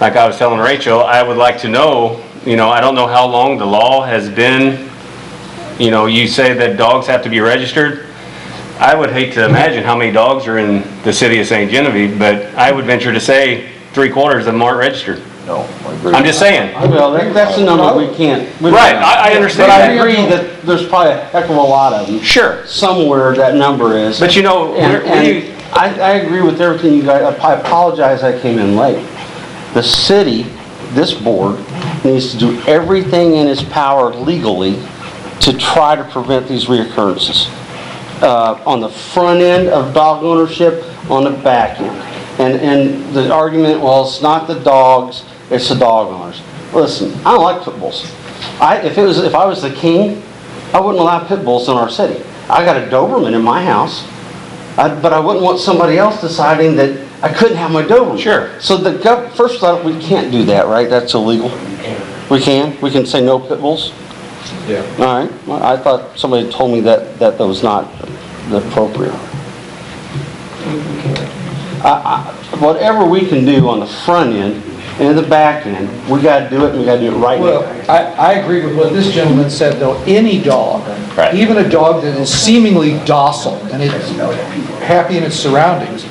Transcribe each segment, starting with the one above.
like I was telling Rachel, I would like to know, you know, I don't know how long the law has been, you know, you say that dogs have to be registered. I would hate to imagine how many dogs are in the city of St. Genevieve, but I would venture to say three quarters of them aren't registered. No, I agree. I'm just saying. Well, that- that's a number we can't. we don't Right, know. I, I But understand I that. agree that there's probably a heck of a lot of them. Sure, Somewhere that number is. but you know, And, we're- we, and I, I agree with everything you guys, I apologize I came in late. The city, this board, needs to do everything in its power legally to try to prevent these reoccurrences. Uh, on the front end of dog ownership, on the back end. And, and the argument, well, it's not the dogs, it's the dog owners. Listen, I don't like pit bulls. I, if it was, if I was the king, I wouldn't allow pit bulls in our city. I got a Doberman in my house. I- But I wouldn't want somebody else deciding that I couldn't have my Doberman. Sure. So the gov, first thought, we can't do that, right? That's illegal. We can? We can say no pit bulls? Yeah. All right. Well, I thought somebody told me that, that that was not the appropriate. I- I- Whatever we can do on the front end and the back end, we gotta do it, and we gotta do it right Well, now. I, I agree with what this gentleman said, though. Any dog, Right. even a dog that is seemingly docile and it's happy in its surroundings,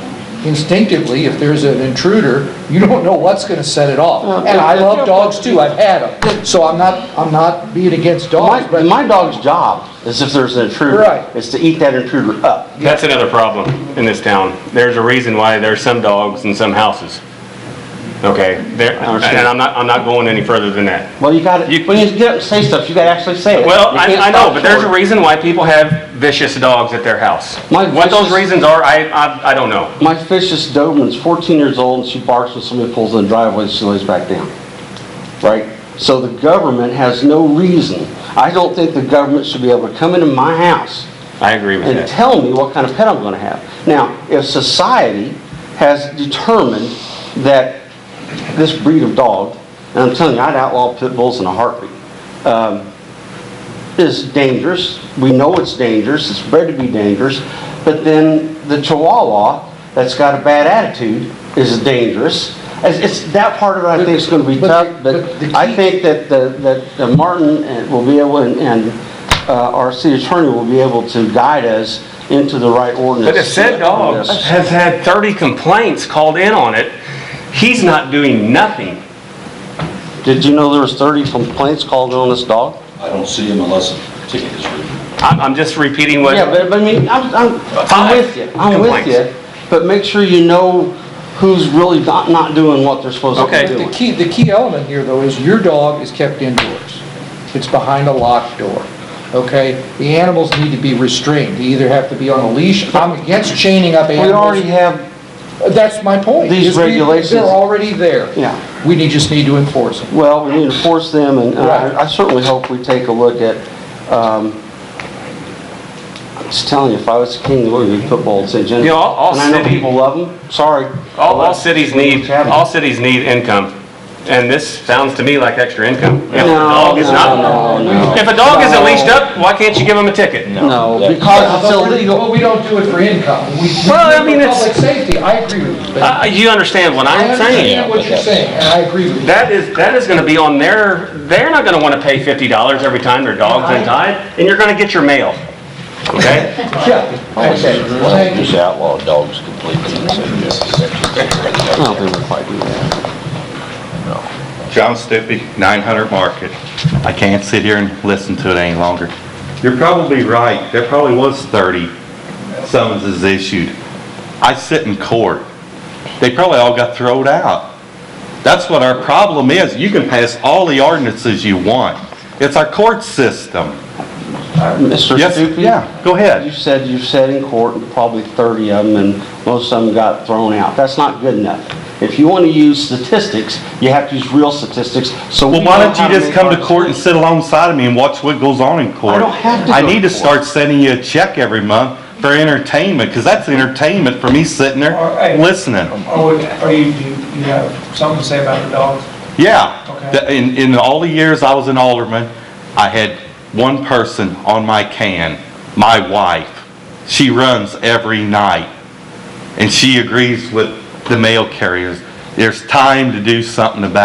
instinctively, if there's an intruder, you don't know what's gonna set it off. And I love dogs too. I've had them. So I'm not, I'm not being against dogs, My, but my dog's job is if there's an intruder. Right. Is to eat that intruder up. that's another problem in this town. There's a reason why there's some dogs in some houses. Okay, there, and understand. I'm not, I'm not going any further than that. Well, you gotta, You- when you get up and say stuff, you gotta actually say it. Well, You I, can't I know, stop but there's a short. reason why people have vicious dogs at their house. My What those vicious- reasons are, I, I, I don't know. My vicious Doberman's 14 years old, and she barks when somebody pulls in the driveway, she lays back down. Right? So the government has no reason. I don't think the government should be able to come into my house I agree with and that. tell me what kind of pet I'm gonna have. Now, if society has determined that this breed of dog, and I'm telling you, I'd outlaw pit bulls in a heartbeat, um, is dangerous, we know it's dangerous, it's bred to be dangerous, but then the Chihuahua that's got a bad attitude is dangerous. It's, it's, that part of it I think is gonna be But- tough, but but the I key- think that, the- that uh, Martin uh, will be able, and- and uh, our city attorney will be able to guide us into the right ordinance. But if said on dog this. has had thirty complaints called in on it, he's not doing nothing. Did you know there was 30 complaints called on this dog? I don't see him unless a ticket is written. I'm, I'm just repeating what, Yeah, but, but I mean, I'm, I'm, I'm with you, I'm with you, but make sure you know who's really not, not doing what they're supposed to Okay. be But the doing. key, the key element here, though, is your dog is kept indoors. It's behind a locked door, okay? The animals need to be restrained. They either have to be on a leash. I'm against chaining up We animals. already have, That's my point. These is we- regulations- They're already there. Yeah. We need, just need to enforce them. well, we need to force them, and and Right. I I certainly hope we take a look at, um, I'm just telling you, if I was king, we would be football in St. Genevieve. You know, all- all And I know city- people love them, sorry. all, all cities need, Chapman. all cities need income. And this sounds to me like extra income. If a No, dog is no, not, no. if a dog isn't leashed up, why can't you give him a ticket? No, because it's But illegal. we don't do it for income. We- we Well, I do it mean, for it's- Public safety, I agree with you. but Uh, you understand what I I'm saying? understand what you're saying, and I agree with you. That is, that is gonna be on their, they're not gonna wanna pay fifty dollars every time their dog's untied, and you're gonna get your mail. Okay? Yeah, okay, thank you. Just outlaw dogs completely. I don't think we'll quite do that. John Stupi, 900 Market. I can't sit here and listen to it any longer. You're probably right, there probably was 30 summonses issued. I sit in court. They probably all got thrown out. That's what our problem is. You can pass all the ordinances you want. It's our court system. Mr. Yes, Stupi? yeah, go ahead. You said you've said in court probably 30 of them, and most of them got thrown out. That's not good enough. If you want to use statistics, you have to use real statistics, so we Well, why know don't how you just make come to our- court and sit alongside of me and watch what goes on in court? I don't have to I go need to to court. start sending you a check every month for entertainment, because that's entertainment for me sitting All right. there listening. Oh, are you, do you you have something to say about the dogs? Yeah. Okay. The- In, in all the years I was an alderman, I had one person on my can, my wife. She runs every night, and she agrees with the mail carriers. there's time to do something about